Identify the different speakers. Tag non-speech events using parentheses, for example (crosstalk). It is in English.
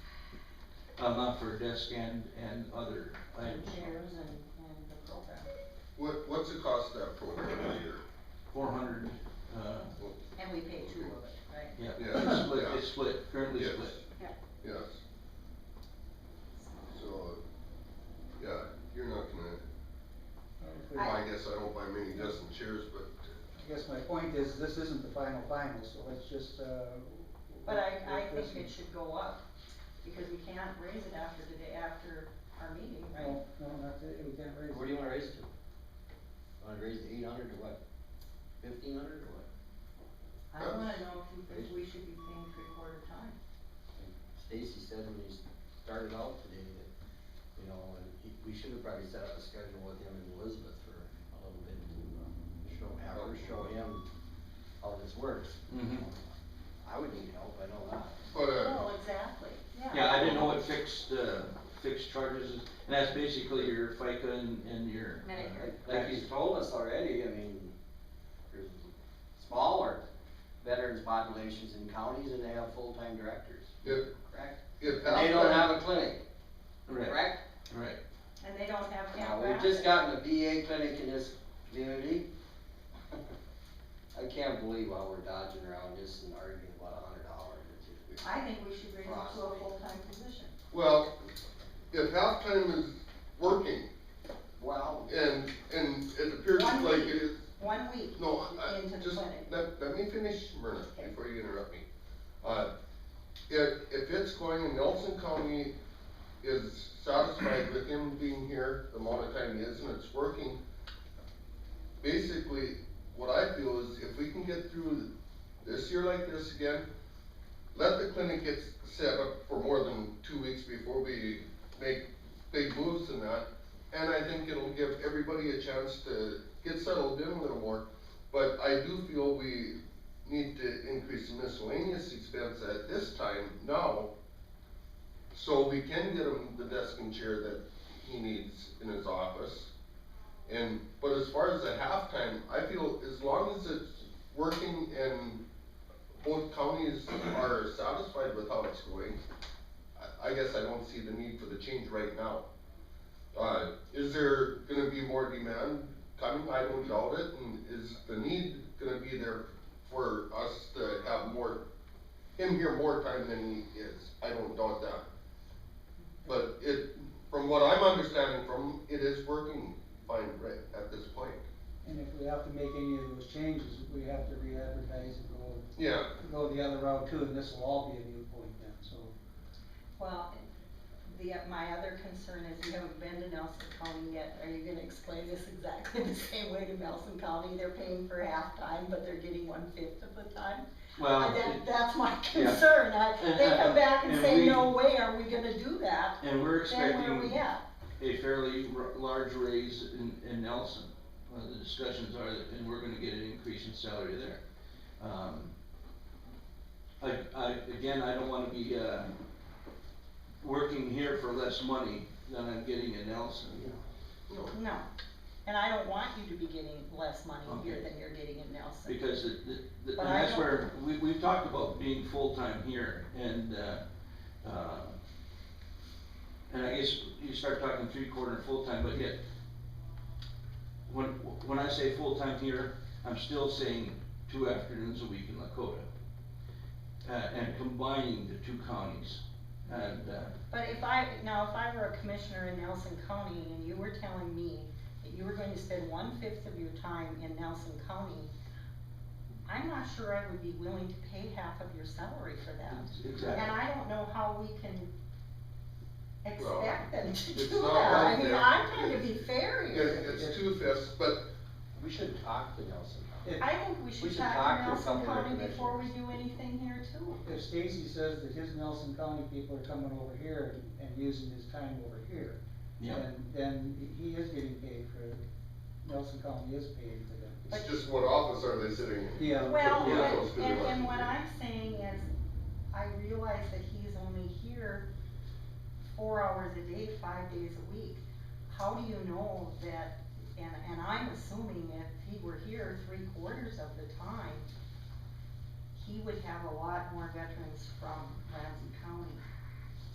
Speaker 1: um, up for desk and, and other
Speaker 2: and
Speaker 1: items.
Speaker 2: chairs and, and the program.
Speaker 3: What, what's the cost of that program a year?
Speaker 1: Four hundred, uh,
Speaker 2: And we pay two of it, right?
Speaker 1: yeah,
Speaker 3: Yeah,
Speaker 1: it's split,
Speaker 3: yeah.
Speaker 1: it's split, currently
Speaker 3: Yes.
Speaker 1: split.
Speaker 3: Yes, so, yeah, you're not gonna, well,
Speaker 2: I-
Speaker 3: I guess I don't buy many dozen chairs, but
Speaker 4: I guess my point is, this isn't the final final, so let's just, uh.
Speaker 2: But I, I
Speaker 4: work this
Speaker 2: think
Speaker 4: and-
Speaker 2: it should go up, because we can't raise it after the day after our meeting, right?
Speaker 4: No, no, not that, we can't raise
Speaker 5: Where
Speaker 4: it.
Speaker 5: do you wanna raise it to? Wanna raise it eight hundred to what? Fifteen hundred or what?
Speaker 2: I wanna know if you think we should be paying three-quarter time.
Speaker 5: Stacy said when he started out today that, you know, and he, we should have probably set up a schedule with him and Elizabeth for a little bit to, uh, show, have her show him how this works. you
Speaker 1: Mhm.
Speaker 5: know. I would need help, I know that.
Speaker 3: but, uh,
Speaker 2: Well, exactly, yeah.
Speaker 1: Yeah, I didn't know what fixed, uh, fixed charges, is, and that's basically your FICA and, and your. uh,
Speaker 2: Medicare.
Speaker 1: Like
Speaker 6: Like
Speaker 1: he's,
Speaker 6: he's told us already, I mean, there's smaller veterans populations in counties and they have full-time directors,
Speaker 3: if,
Speaker 6: correct?
Speaker 3: if.
Speaker 6: And they
Speaker 3: half
Speaker 6: don't
Speaker 3: that-
Speaker 6: have a clinic,
Speaker 1: right,
Speaker 6: correct?
Speaker 1: right,
Speaker 2: And they don't have
Speaker 6: Now,
Speaker 2: Camp
Speaker 6: Uh, we've just
Speaker 2: Rapid.
Speaker 6: gotten a VA clinic in this community. (laughs) I can't believe why we're dodging around this and arguing about a hundred dollars or two.
Speaker 2: I think we should raise it to a
Speaker 6: Frostbite.
Speaker 2: full-time position.
Speaker 3: Well, if halftime is working,
Speaker 6: Well,
Speaker 3: and, and it appears
Speaker 2: One
Speaker 3: like
Speaker 2: week.
Speaker 3: it is,
Speaker 2: One week
Speaker 3: no, I,
Speaker 2: into the
Speaker 3: just,
Speaker 2: clinic.
Speaker 3: let, let me finish, Myrna,
Speaker 2: Okay.
Speaker 3: before you interrupt me. Uh, if, if it's going, and Nelson County is satisfied with him being here, the amount of time he is, and it's working, basically, what I feel is if we can get through this year like this again, let the clinic get set up for more than two weeks before we make big moves in that. And I think it'll give everybody a chance to get settled in a little more. But I do feel we need to increase the miscellaneous expense at this time now. So we can get him the desk and chair that he needs in his office. And, but as far as the halftime, I feel as long as it's working and both counties are satisfied with how it's going, I, I guess I don't see the need for the change right now. Uh, is there gonna be more demand coming? I don't doubt it, and is the need gonna be there for us to have more, him here more time than he is? I don't doubt that. But it, from what I'm understanding from, it is working fine right at this point.
Speaker 4: And if we have to make any of those changes, we have to re-advertise and go,
Speaker 3: Yeah,
Speaker 4: go the other route too, and this will all be a new point then, so.
Speaker 2: Well, the, my other concern is you haven't been to Nelson County yet, are you gonna explain this exactly (laughs) the same way to Nelson County? They're paying for half time, but they're getting one-fifth of the time?
Speaker 1: well,
Speaker 2: That,
Speaker 1: Uh, it-
Speaker 2: that's my
Speaker 1: Yeah.
Speaker 2: concern, I, they come back and
Speaker 1: And
Speaker 2: say,
Speaker 1: we-
Speaker 2: no way are we gonna do that,
Speaker 1: and we're
Speaker 2: then where are
Speaker 1: expecting
Speaker 2: we at?
Speaker 1: a fairly r- large raise in, in Nelson. Uh, the discussions are that, and we're gonna get an increase in salary there. Um, I, I, again, I don't wanna be, uh, working here for less money than I'm getting in Nelson.
Speaker 3: no,
Speaker 2: No, and I don't want you to be getting less money here
Speaker 1: Okay.
Speaker 2: than you're getting in Nelson.
Speaker 1: Because it, the- the,
Speaker 2: But
Speaker 1: and
Speaker 2: I
Speaker 1: that's
Speaker 2: don't-
Speaker 1: where, we, we've talked about being full-time here and, uh, uh, and I guess you start talking three-quarter and full-time, but yet, when, when I say full-time here, I'm still saying two afternoons a week in Lakota. Uh, and combining the two counties and, uh,
Speaker 2: But if I, now, if I were a commissioner in Nelson County and you were telling me that you were going to spend one-fifth of your time in Nelson County, I'm not sure I would be willing to pay half of your salary for that.
Speaker 1: exactly.
Speaker 2: And I don't know how we can
Speaker 3: Well,
Speaker 2: expect them to
Speaker 3: it's
Speaker 2: do that.
Speaker 3: not
Speaker 2: I
Speaker 3: like
Speaker 2: mean,
Speaker 3: that.
Speaker 2: I'm trying to be fair
Speaker 3: it,
Speaker 2: here.
Speaker 3: it's two fifths, but
Speaker 5: We should talk to Nelson County.
Speaker 4: If,
Speaker 2: I think we
Speaker 5: We
Speaker 2: should
Speaker 5: should
Speaker 2: talk to
Speaker 5: talk to
Speaker 2: Nelson
Speaker 5: some of the
Speaker 2: County before we
Speaker 5: commissioners.
Speaker 2: do anything here too.
Speaker 4: if Stacy says that his Nelson County people are coming over here and, and using his time over here,
Speaker 1: Yeah,
Speaker 4: then, then he is getting paid for, Nelson County is paying for them.
Speaker 3: it's just what office are they sitting in?
Speaker 4: Yeah.
Speaker 2: Well,
Speaker 3: Yeah.
Speaker 2: but-
Speaker 3: Yeah.
Speaker 2: and, and what I'm saying is, I realize that he's only here four hours a day, five days a week. How do you know that, and, and I'm assuming if he were here three quarters of the time, he would have a lot more veterans from Ramsey County